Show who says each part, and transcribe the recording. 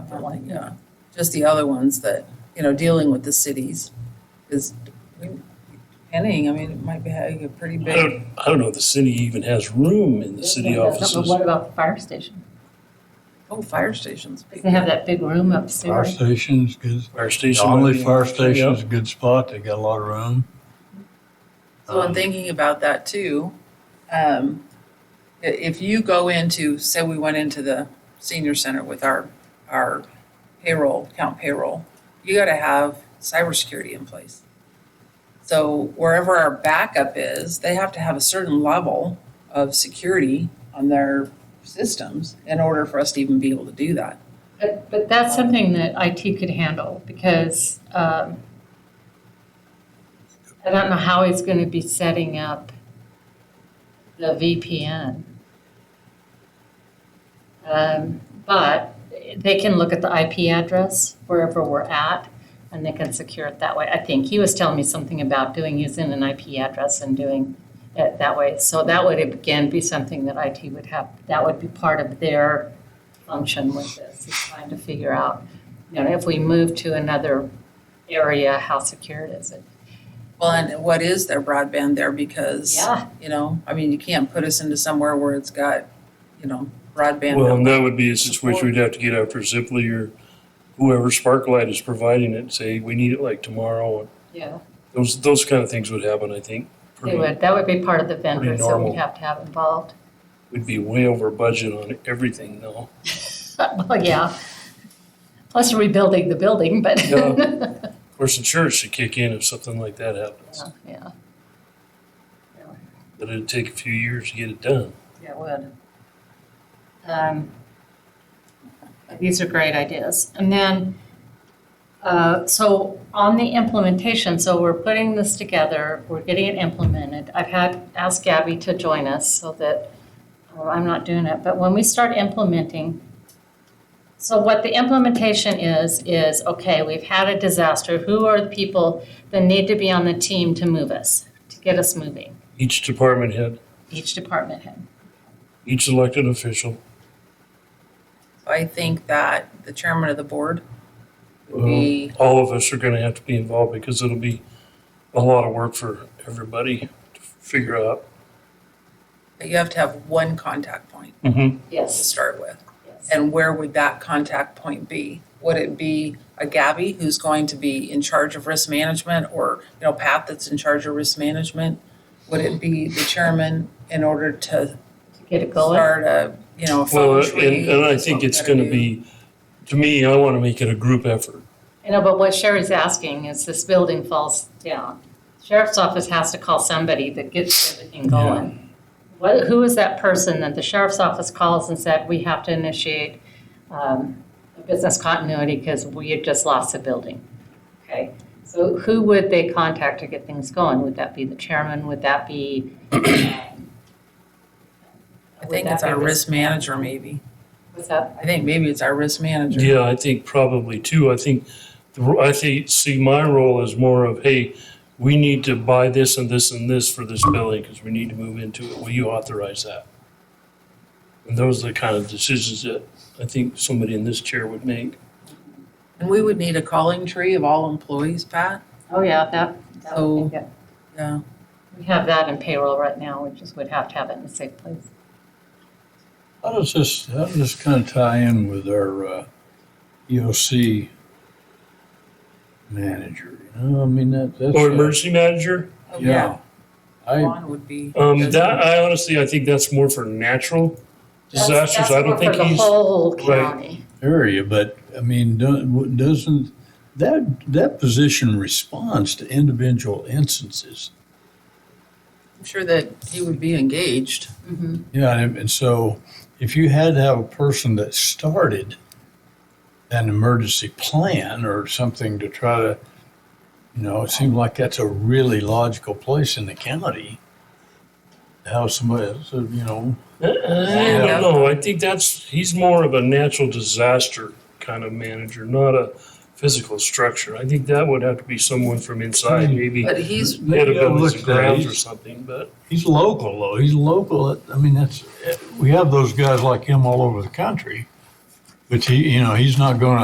Speaker 1: not like, you know, just the other ones that, you know, dealing with the cities. Is, depending, I mean, it might be having a pretty
Speaker 2: I
Speaker 1: big,
Speaker 2: don't, I don't know if the city even has room in the city
Speaker 3: Yeah, but
Speaker 2: offices.
Speaker 3: What about the fire station?
Speaker 1: oh, fire stations. big.
Speaker 3: They have that big room
Speaker 4: Fire
Speaker 3: upstairs.
Speaker 4: station's good.
Speaker 2: Fire
Speaker 4: The
Speaker 2: station. might
Speaker 4: Only
Speaker 2: be-
Speaker 4: fire
Speaker 2: Yeah.
Speaker 4: station's a good spot. They got a lot of room.
Speaker 1: So in
Speaker 4: Um,
Speaker 1: thinking about that too, um, i- if you go into, say we went into the senior center with our, our payroll, count payroll, you gotta have cybersecurity in place. So wherever our backup is, they have to have a certain level of security on their systems in order for us to even be able to do that.
Speaker 3: But, but that's something that IT could handle because um, I don't know how he's going to be setting up the VPN. Um, But they can look at the IP address wherever we're at and they can secure it that way. I think he was telling me something about doing, using an IP address and doing it that way. So that would again be something that IT would have, that would be part of their function with this, is trying to figure out, you know, if we move to another area, how secure is it?
Speaker 1: Well, and what is their broadband there because,
Speaker 3: Yeah.
Speaker 1: you know, I mean, you can't put us into somewhere where it's got, you know, broadband.
Speaker 2: Well, and that would be a situation we'd have to get after Zipley or whoever Sparklight is providing it, say, we need it like tomorrow.
Speaker 3: Yeah,
Speaker 2: Those, those kind of things would happen, I think.
Speaker 3: they
Speaker 2: pretty-
Speaker 3: would, that would be part of the vendor,
Speaker 2: pretty
Speaker 3: so
Speaker 2: normal.
Speaker 3: we'd have to have involved.
Speaker 2: We'd be way over budget on everything though.
Speaker 3: Well, yeah, plus rebuilding the building, but,
Speaker 2: Yeah. Of course, insurance should kick in if something like that happens,
Speaker 3: yeah,
Speaker 2: but it'd take a few years to get it done.
Speaker 3: yeah, it would. Um, These are great ideas. And then, uh, so on the implementation, so we're putting this together, we're getting it implemented. I've had, asked Gabby to join us so that, well, I'm not doing it, but when we start implementing, so what the implementation is, is, okay, we've had a disaster, who are the people that need to be on the team to move us, to get us moving?
Speaker 2: Each department head,
Speaker 3: Each department head.
Speaker 2: each elected official,
Speaker 1: I think that the chairman of the board would be,
Speaker 2: all of us are gonna have to be involved because it'll be a lot of work for everybody to figure out.
Speaker 1: but you have to have one contact point
Speaker 2: Mm-hmm.
Speaker 1: to
Speaker 3: Yes.
Speaker 1: start with.
Speaker 3: Yes.
Speaker 1: And where would that contact point be? Would it be a Gabby who's going to be in charge of risk management or, you know, Pat that's in charge of risk management? Would it be the chairman in order to
Speaker 3: To get it going.
Speaker 1: start a, you know, a
Speaker 2: Well,
Speaker 1: phone
Speaker 2: uh,
Speaker 1: tree?
Speaker 2: and, and I
Speaker 1: That's what
Speaker 2: think
Speaker 1: we
Speaker 2: it's
Speaker 1: gotta
Speaker 2: gonna
Speaker 1: do.
Speaker 2: be, to me, I wanna make it a group effort.
Speaker 3: You know, but what Sherry's asking is this building falls down. Sheriff's office has to call somebody that gets everything going. What, who is that person that the sheriff's office calls and said, we have to initiate um, a business continuity because we had just lost a building? Okay, so who would they contact to get things going? Would that be the chairman? Would that be? um,
Speaker 1: I
Speaker 3: would
Speaker 1: think
Speaker 3: that
Speaker 1: it's
Speaker 3: be
Speaker 1: our
Speaker 3: the-
Speaker 1: risk manager maybe.
Speaker 3: What's that?
Speaker 1: I think maybe it's our risk manager.
Speaker 2: Yeah, I think probably too. I think, the ro- I think, see, my role is more of, hey, we need to buy this and this and this for this building because we need to move into it. Will you authorize that? And those are the kind of decisions that I think somebody in this chair would make.
Speaker 1: And we would need a calling tree of all employees, Pat.
Speaker 3: Oh, yeah, that, that would be good.
Speaker 1: Yeah.
Speaker 3: We have that in payroll right now, we just would have to have it in a safe place.
Speaker 4: How does this, how does this kind of tie in with our uh, EOC manager? You know, I mean, that, that's.
Speaker 2: Or
Speaker 4: uh,
Speaker 2: emergency manager?
Speaker 1: Oh,
Speaker 4: Yeah. I,
Speaker 1: Juan would be.
Speaker 2: Um, that, I honestly, I think that's more for natural disasters. I don't think he's,
Speaker 3: For the whole
Speaker 2: Right.
Speaker 3: county.
Speaker 4: area, but I mean, do- w- doesn't, that, that position responds to individual instances.
Speaker 1: I'm sure that he would be engaged.
Speaker 3: Mhm.
Speaker 4: Yeah, and, and so if you had to have a person that started an emergency plan or something to try to, you know, it seemed like that's a really logical place in the county. to Have somebody, else, uh, you know,
Speaker 2: I
Speaker 1: Yeah.
Speaker 2: don't know. I think that's, he's more of a natural disaster kind of manager, not a physical structure. I think that would have to be someone from inside, maybe.
Speaker 1: But he's,
Speaker 2: Head of
Speaker 4: Yeah,
Speaker 2: buildings
Speaker 4: look,
Speaker 2: and grounds or
Speaker 4: he's-
Speaker 2: something, but
Speaker 4: he's local though. He's local. I mean, eh, that's, we have those guys like him all over the country. But he, you know, he's not going to